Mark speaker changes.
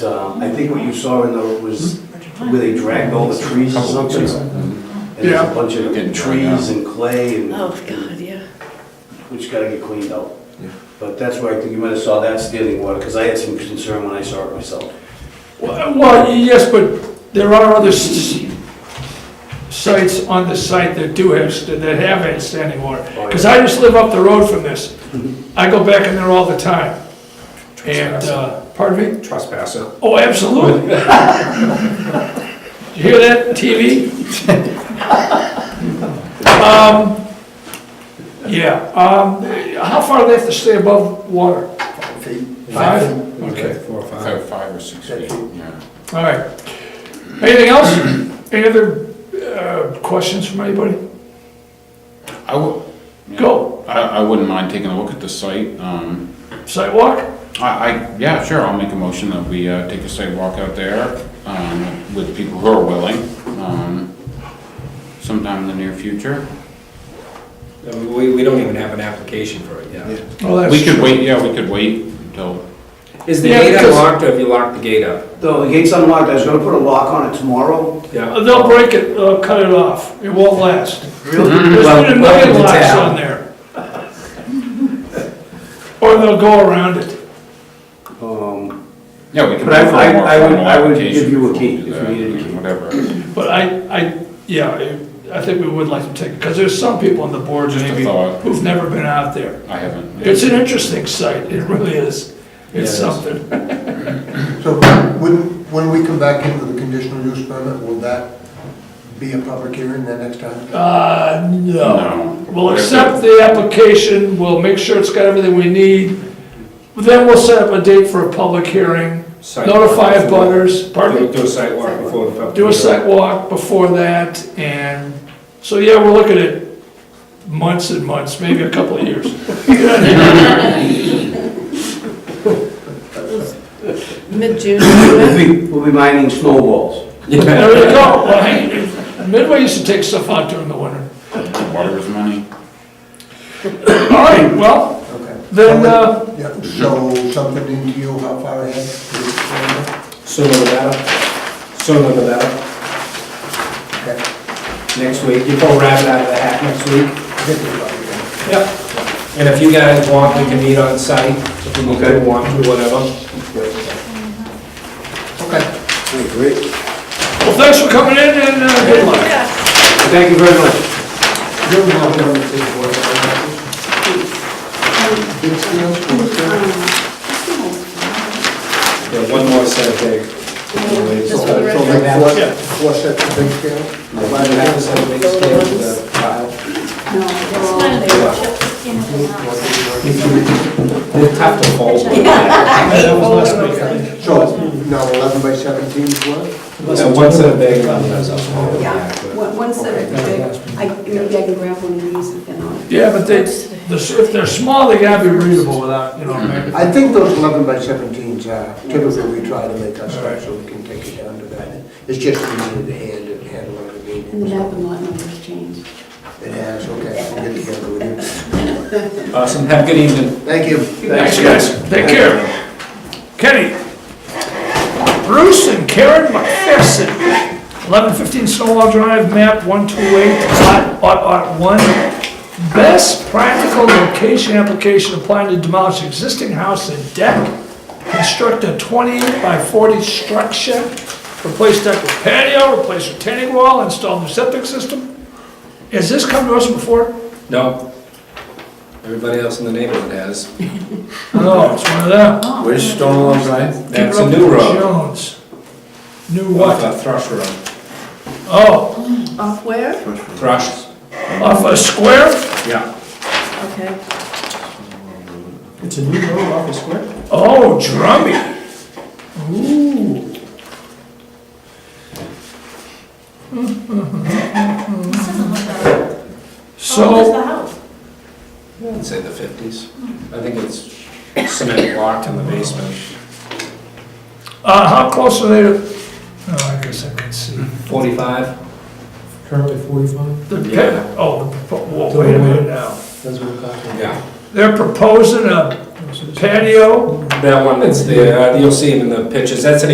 Speaker 1: Uh, I think what you saw in the, was
Speaker 2: Hmm?
Speaker 1: where they dragged all the trees or something. And there's
Speaker 3: Yeah.
Speaker 1: a bunch
Speaker 4: Getting
Speaker 1: of
Speaker 4: dragged out.
Speaker 1: trees and clay and,
Speaker 2: Oh, God, yeah.
Speaker 1: which gotta get cleaned out.
Speaker 4: Yeah.
Speaker 1: But that's where I think you might have saw that standing water, because I had some concern when I saw it myself.
Speaker 3: Well, well, yes, but there are other s- sites on the site that do have, st- that have had standing water.
Speaker 1: Oh, yeah.
Speaker 3: Because I just live up the road from this. I go back in there all the time. And, uh, pardon me?
Speaker 5: Trespasser.
Speaker 3: Oh, absolutely. Did you hear that, TV? Um, Yeah, um, how far do they have to stay above water? Five? Okay.
Speaker 5: Four
Speaker 1: Uh,
Speaker 5: or five.
Speaker 4: Five, five or six feet, yeah.
Speaker 3: All right. Anything else? Any other uh, questions from anybody?
Speaker 4: I would,
Speaker 3: Go.
Speaker 4: I, I wouldn't mind taking a look at the site. Um,
Speaker 3: Sidewalk?
Speaker 4: I, I, yeah, sure, I'll make a motion that we, uh, take a site walk out there, um, with people who are willing, um, sometime in the near future.
Speaker 5: We, we don't even have an application for it yet.
Speaker 3: Well, that's
Speaker 4: We could wait, yeah, we could wait until,
Speaker 5: Is the
Speaker 3: Yeah,
Speaker 5: gate
Speaker 3: because-
Speaker 5: unlocked or have you locked the gate up?
Speaker 1: Though the gate's unlocked, I was gonna put a lock on it tomorrow.
Speaker 5: Yeah.
Speaker 3: Uh, They'll break it, uh, cut it off. It won't last.
Speaker 1: Really?
Speaker 3: There's
Speaker 5: Well,
Speaker 3: been a
Speaker 5: welcome
Speaker 3: million
Speaker 5: to
Speaker 3: locks
Speaker 5: town.
Speaker 3: on there. Or they'll go around it.
Speaker 1: Um,
Speaker 4: yeah, we could.
Speaker 1: But I-
Speaker 4: wait for a
Speaker 1: I-
Speaker 4: more
Speaker 1: I would-
Speaker 4: formal
Speaker 1: I would
Speaker 4: application
Speaker 1: give you a
Speaker 4: before we
Speaker 1: key
Speaker 4: do
Speaker 1: if
Speaker 4: that,
Speaker 1: we needed a
Speaker 4: I mean,
Speaker 1: key.
Speaker 4: Whatever,
Speaker 3: But I, I, yeah, I- I think we would like to take it, because there's some people on the board
Speaker 4: Just a
Speaker 3: maybe
Speaker 4: thought.
Speaker 3: who've never been out there.
Speaker 4: I haven't.
Speaker 3: It's an interesting site, it really is. It's
Speaker 5: Yeah, it is.
Speaker 3: something.
Speaker 6: So when, when we come back into the conditional use permit, will that be a public hearing then next time?
Speaker 3: Uh, no.
Speaker 4: No.
Speaker 3: We'll accept the application, we'll make sure it's got everything we need. Then we'll set up a date for a public hearing,
Speaker 5: Site walk
Speaker 3: notify
Speaker 5: before-
Speaker 3: butters, pardon
Speaker 5: Do
Speaker 3: me,
Speaker 5: do a site walk before the public.
Speaker 3: do a
Speaker 5: hearing.
Speaker 3: site walk before that, and, so yeah, we're looking at months and months, maybe a couple of years.
Speaker 2: Mid-June.
Speaker 1: We'll be, we'll be mining snowballs.
Speaker 3: There you go, Well, hey, Midway used to take stuff out during the winter.
Speaker 4: Water is money.
Speaker 3: All right, well,
Speaker 6: Okay.
Speaker 3: then, uh,
Speaker 6: Yeah, so something into you, how far ahead? is it from
Speaker 5: Sooner the better. Sooner the better.
Speaker 6: there? Okay.
Speaker 5: Next week, you pull rabbit out of the hat next week.
Speaker 6: Get it right then.
Speaker 5: Yep. And if you guys want, we can meet on site, if you
Speaker 1: Okay.
Speaker 5: want to, whatever.
Speaker 6: Okay,
Speaker 1: Great.
Speaker 3: well, thanks for coming in and uh, good luck.
Speaker 1: Thank you very much.
Speaker 6: you're welcome to the board. Anything else for us, sir?
Speaker 5: Yeah, one more set of big.
Speaker 6: So,
Speaker 2: Just
Speaker 5: for the
Speaker 6: so
Speaker 5: record.
Speaker 6: like four, four sets of big scale?
Speaker 5: I'm glad we have this on the big scale uh, with the file. They're tough to fold.
Speaker 6: That was last week. So, now eleven by seventeen is what?
Speaker 5: So one set of big ones. Yeah.
Speaker 7: One one set of big, I, maybe I can grab one of these and then I'll.
Speaker 3: Yeah, but they, the s- if they're small, they gotta be readable without, you know, man.
Speaker 6: I think those eleven by seventeens are typically we try to make us right so we can take it down to that. It's just easier to hand and handle it, I mean.
Speaker 7: And the map and lot numbers changed.
Speaker 6: It has, okay, I'll get together with you.
Speaker 5: Awesome, have a good evening.
Speaker 6: Thank you.
Speaker 3: Thanks, guys. Take care. Kenny. Bruce and Karen McPherson, 1115 Snowball Drive, map 128, lot, lot, lot 1. Best practical location application applying to demolish existing house and deck. Construct a 20 by 40 structure. Replace deck with patio, replace retaining wall, install new septic system. Has this come to us before?
Speaker 5: No. Everybody else in the neighborhood has.
Speaker 3: No, it's one of them.
Speaker 4: Where's Stonewall Drive?
Speaker 5: That's a new road.
Speaker 3: Jones. New
Speaker 5: Off
Speaker 3: what?
Speaker 5: a Thrush Road.
Speaker 3: Oh,
Speaker 2: Off where?
Speaker 5: Thrush,
Speaker 3: off a square?
Speaker 5: yeah.
Speaker 2: Okay.
Speaker 5: It's a new road off a square?
Speaker 3: Oh, drummy. Ooh.
Speaker 8: Oh,
Speaker 3: So,
Speaker 5: I'd say the fifties. I think it's cement blocked in the basement.
Speaker 3: uh, how close are they to, oh, I guess I can see.
Speaker 5: Forty-five?
Speaker 8: Currently forty-five,
Speaker 3: The pit,
Speaker 5: Yeah.
Speaker 3: oh, the propo- whoa, wait a minute now.
Speaker 8: that's what we're talking
Speaker 5: Yeah.
Speaker 3: They're proposing a patio
Speaker 5: That one that's there, uh, you'll see it in the pictures, that's an